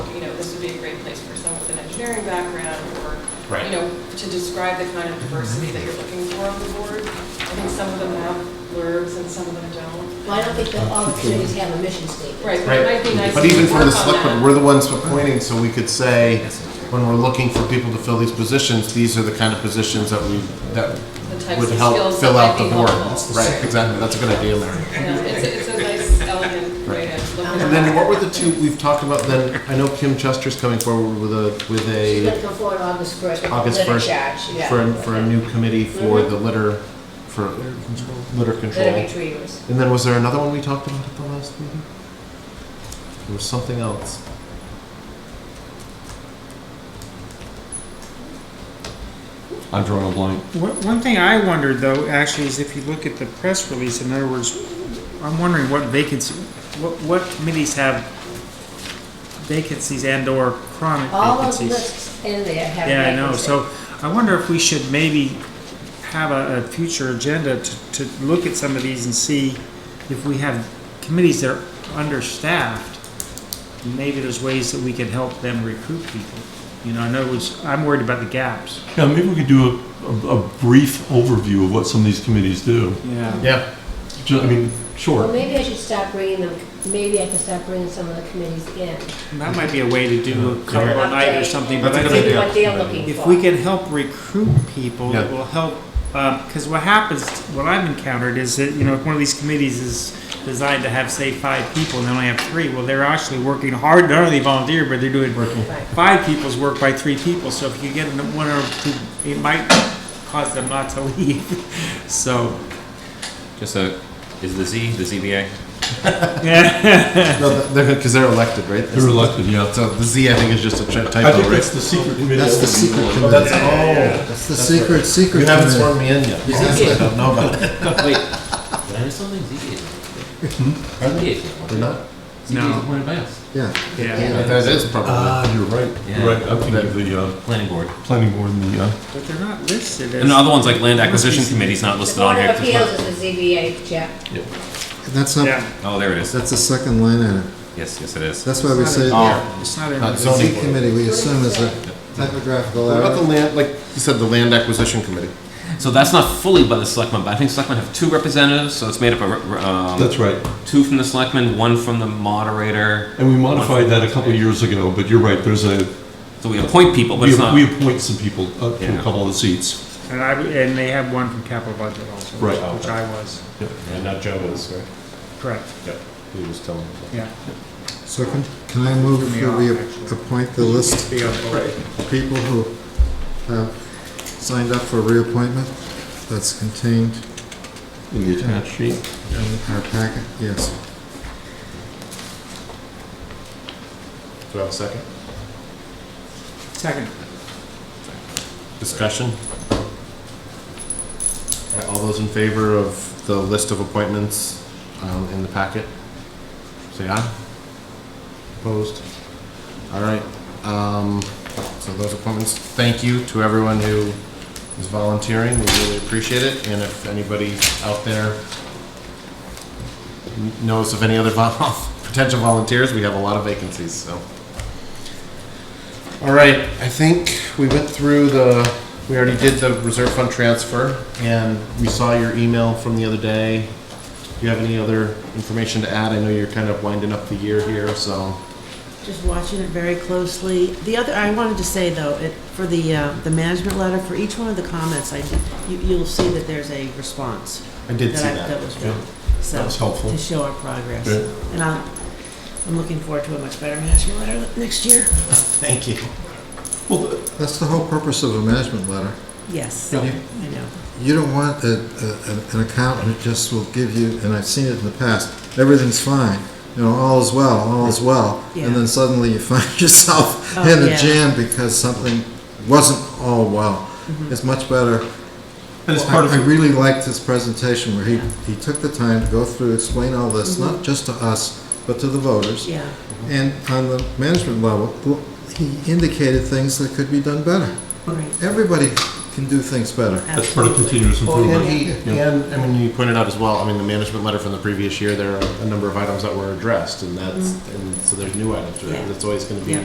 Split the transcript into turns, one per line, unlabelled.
would be a great place for someone with an engineering background or,
Right.
you know, to describe the kind of diversity that you're looking for on the board. I think some of them have blurbs and some of them don't.
Well, I don't think that all the communities have a mission statement.
Right, but it might be nice
But
to
even for
work
the
on
selectmen,
that.
we're the ones appointing, so we could say, when we're looking for people to fill these positions, these are the kind of positions that we, that
The types
would
of
help
skills
fill
that
out
might
the
be
board.
helpful.
Right, exactly, that's a good idea, Larry.
Yeah, It's a- it's a nice, elegant way to look at it.
And then what were the two, we've talked about then, I know Kim Chester's coming forward with a, with
She's
a,
gonna come forward August first.
August first,
yeah.
for, a- for a new committee for
Mm-hmm.
the litter, for litter
Litter
control.
retrievers.
And then was there another one we talked about at the last meeting? There was something else. I'm drawing a blank.
One one thing I wondered though, actually, is if you look at the press release, in other words, I'm wondering what vacancy, what, what committees have vacancies and or chronic
All those
vacancies?
lists in there have.
Yeah, I know,
vacancies.
so I wonder if we should maybe have a, a future agenda to, to look at some of these and see if we have committees that are understaffed. Maybe there's ways that we can help them recruit people. You know, in other words, I'm worried about the gaps.
Yeah, maybe we could do a, a, a brief overview of what some of these committees do.
Yeah.
Yeah,
Ju- I mean,
Well,
sure.
maybe I should start bringing them, maybe I can start bringing some of the committees in.
That might be a way to do a couple a night or something, but
That's a
I
good
think
idea.
See what they're looking for.
if we can help recruit people,
Yeah.
it will help, because what happens, what I've encountered is that, you know, if one of these committees is designed to have, say, five people and they only have three, well, they're actually working hard, not only volunteer, but they're doing five people's work by three people, so if you get them one or two, it might cause them not to leave. So,
Just a, is the Z the ZBA?
yeah,
no, they're, because they're elected, right?
They're elected, yeah.
So the Z, I think, is just a tri-
I think
typo,
that's
right?
the secret committee.
That's the secret
Oh,
committee.
that's, oh,
That's the secret, secret
you haven't
committee.
sworn me in yet. I don't know about it.
Wait, did I miss something? ZBA. ZBA. is not one.
They're not?
ZBA is
No.
appointed by us.
Yeah.
yeah,
That is probably.
Ah, you're right. You're right. I'm thinking of the, uh,
Planning board.
planning board and the, uh,
but they're not listed as.
And the other ones like land acquisition committee's not
The
listed on
Board
here.
of
'cause it's
Appeals
not-
is the ZBA, Jeff.
And that's up,
Yeah,
Oh, there it is.
that's the second line in it.
Yes, yes, it is.
That's why we
It's
say
not
the
in- it's not in.
Not
the-
Ah. Uh, zoning
Z
board.
committee, we assume is a typographical
What about the
error.
land, like you said, the land acquisition committee?
So that's not fully by the selectmen, but I think selectmen have two representatives, so it's made up of, um,
that's right.
two from the selectmen, one from the moderator.
And we modified that a couple of years ago, but you're right, there's a,
So we appoint people, but
we
it's not.
we appoint some people uh, to a
Yeah.
couple of the seats.
And I, and they have one from capital budget also, which
Right.
which I was,
And not Joe is, right?
correct,
He was telling me.
yeah.
So can, can I move
Threw me
that we
off, actually.
appoint the list
Be helpful.
of people who have signed up for reappointment? That's contained
In the attached sheet.
in our packet, yes.
Do I have a second?
Second.
Discussion? All those in favor of the list of appointments um, in the packet? Say aye. Opposed? All right. um, So those appointments, thank you to everyone who is volunteering. We really appreciate it. And if anybody out there knows of any other vol- potential volunteers, we have a lot of vacancies, so. All right, I think we went through the, we already did the reserve fund transfer, and we saw your email from the other day. Do you have any other information to add? I know you're kind of winding up the year here, so.
Just watching it very closely. The other, I wanted to say though, it, for the, uh, the management letter, for each one of the comments, I, you, you'll see that there's a response.
I did see
I-
that.
That was written. So,
That was helpful.
To show our progress.
Yeah.
And I'm, I'm looking forward to a much better management letter next year.
Thank you.
Well,
That's the whole purpose of a management letter.
Yes,
Yeah.
I know.
You don't want a, a, an- an accountant who just will give you, and I've seen it in the past, everything's fine, you know, all is well, all is well, and then
Yeah.
suddenly you find yourself
Oh,
in a
yeah.
jam because something wasn't all well.
Mm-hmm.
It's much better.
and it's
I-
part of,
I
the-
really liked his presentation where he, he took the time to go through, explain all this, not just to us, but to the voters.
Mm-hmm.
Mm-hmm.
Yeah,
And on the management level, l- he indicated things that could be done better.
right.
Everybody can do things better.
that's part of
Absolutely.
continuous
Well,
improvement.
and he, and, I mean, you pointed out as well, I mean, the management letter from the previous year, there are a number of items that were addressed, and that's, and so there's new items, right?
Mm-hmm. Yeah.
That's always gonna be
Yeah.